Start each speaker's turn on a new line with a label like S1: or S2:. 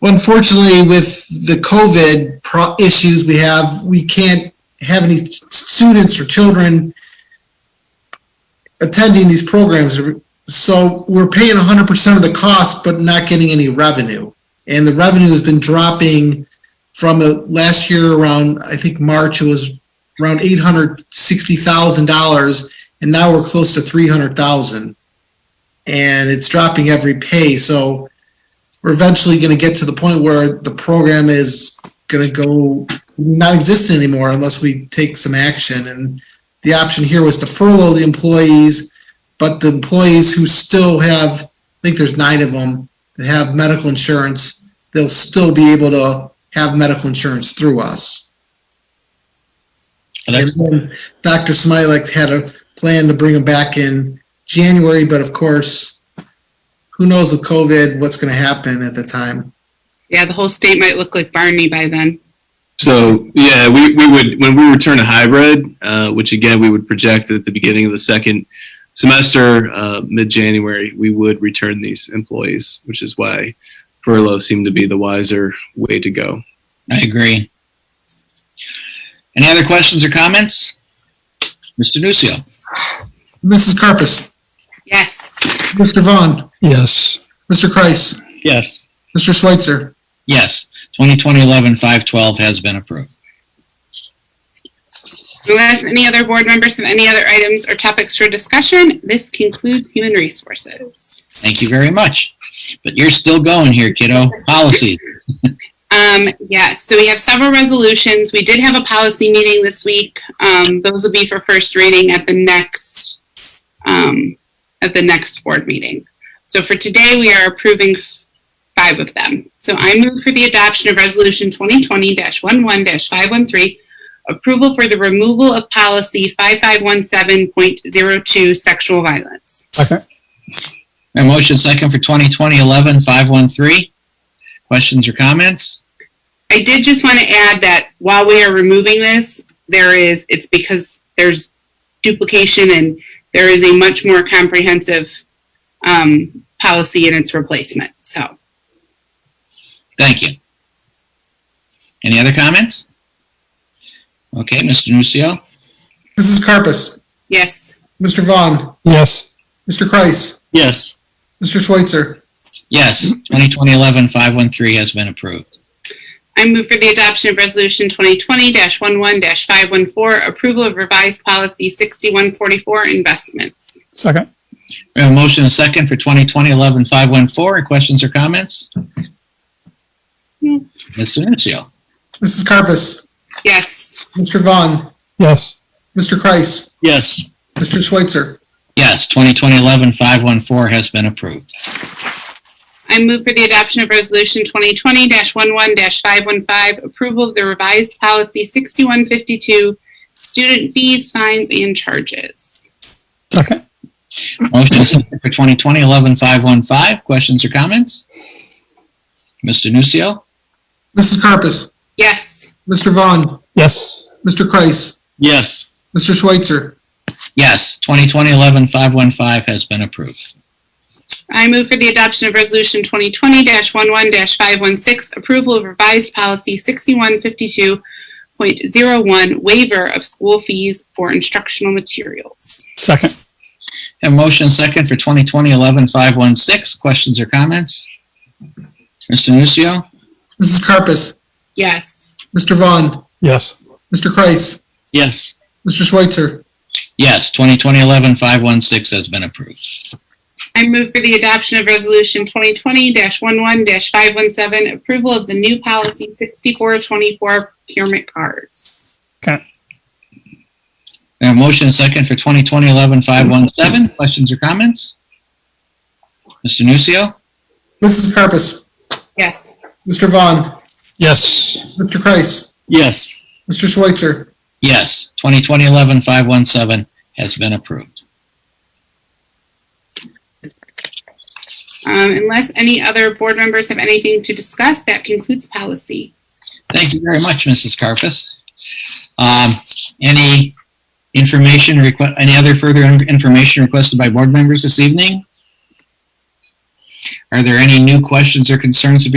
S1: Well, unfortunately, with the COVID pro- issues we have, we can't have any students or children attending these programs. So we're paying hundred percent of the cost, but not getting any revenue. And the revenue has been dropping from uh, last year around, I think, March, it was around eight hundred sixty thousand dollars, and now we're close to three hundred thousand. And it's dropping every pay, so we're eventually going to get to the point where the program is going to go not exist anymore unless we take some action. And the option here was to furlough the employees, but the employees who still have, I think there's nine of them that have medical insurance, they'll still be able to have medical insurance through us.
S2: And
S1: And
S2: that's-
S1: then Dr. Smilek had a plan to bring them back in January, but of course, who knows with COVID, what's going to happen at the time.
S3: Yeah, the whole state might look like Barney by then.
S4: So yeah, we, we would when we return to hybrid, uh, which again we would project at the beginning of the second semester, uh, mid January, we would return these employees, which is why furlough seemed to be the wiser way to go.
S2: I agree. Any other questions or comments? Mr. Nucio.
S1: Mrs. Carpus.
S3: Yes.
S1: Mr. Vaughn.
S5: Yes,
S1: Mr. Kreis.
S2: Yes.
S1: Mr. Schweitzer.
S2: Yes. 2020-11-512 has been approved.
S3: Unless any other board members have any other items or topics for discussion, this concludes human resources.
S2: Thank you very much. But you're still going here, kiddo. Policy.
S3: Um, yeah, so we have several resolutions. We did have a policy meeting this week. Um, those will be for first reading at the next, um, at the next board meeting. So for today, we are approving five of them. So I move for the adoption of Resolution 2020-11-513, approval for the removal of policy 5517.02, sexual violence.
S2: A motion second for 2020-11-513. Questions or comments?
S3: I did just want to add that while we are removing this, there is, it's because there's duplication and there is a much more comprehensive um, policy in its replacement. So,
S2: Thank you. Any other comments? Okay, Mr. Nucio.
S1: Mrs. Carpus.
S3: yes,
S1: Mr. Vaughn.
S5: yes,
S1: Mr. Kreis.
S4: Yes.
S1: Mr. Schweitzer.
S2: Yes, 2020-11-513 has been approved.
S3: I move for the adoption of Resolution 2020-11-514, approval of revised policy 6144, investments.
S5: second,
S2: We have a motion and a second for 2020-11-514. Any Questions or comments?
S3: No.
S2: Mr. Nucio.
S1: Mrs. Carpus.
S3: Yes,
S1: Mr. Vaughn.
S5: yes,
S1: Mr. Kreis.
S4: Yes.
S1: Mr. Schweitzer.
S2: Yes, 2020-11-514 has been approved.
S3: I move for the adoption of Resolution 2020-11-515, approval of the revised policy 6152, student fees, fines, and charges.
S5: second,
S2: Motion and second for 2020-11-515. Questions or comments? Mr. Nucio.
S1: Mrs. Carpus.
S3: Yes.
S1: Mr. Vaughn.
S5: yes,
S1: Mr. Kreis.
S4: Yes.
S1: Mr. Schweitzer.
S2: Yes, 2020-11-515 has been approved.
S3: I move for the adoption of Resolution 2020-11-516, approval of revised policy 6152.01, waiver of school fees for instructional materials.
S5: second,
S2: Have a motion and second for 2020-11-516. Questions or comments? Mr. Nucio.
S1: Mrs. Carpus.
S3: Yes.
S1: Mr. Vaughn.
S5: yes,
S1: Mr. Kreis.
S4: Yes.
S1: Mr. Schweitzer.
S2: Yes, 2020-11-516 has been approved.
S3: I move for the adoption of Resolution 2020-11-517, approval of the new policy 6424 procurement cards.
S2: We have a motion and second for 2020-11-517. Questions or comments? Mr. Nucio?
S1: Mrs. Carpus.
S3: Yes.
S1: Mr. Vaughn.
S5: yes,
S1: Mr. Kreis.
S4: Yes.
S1: Mr. Schweitzer.
S2: Yes, 2020-11-517 has been approved.
S3: Um, Unless any other board members have anything to discuss, that concludes policy.
S2: Thank you very much, Mrs. Carpus. Um, Any information, requ- any other further in- information requested by board members this evening? Are there any new questions or concerns to be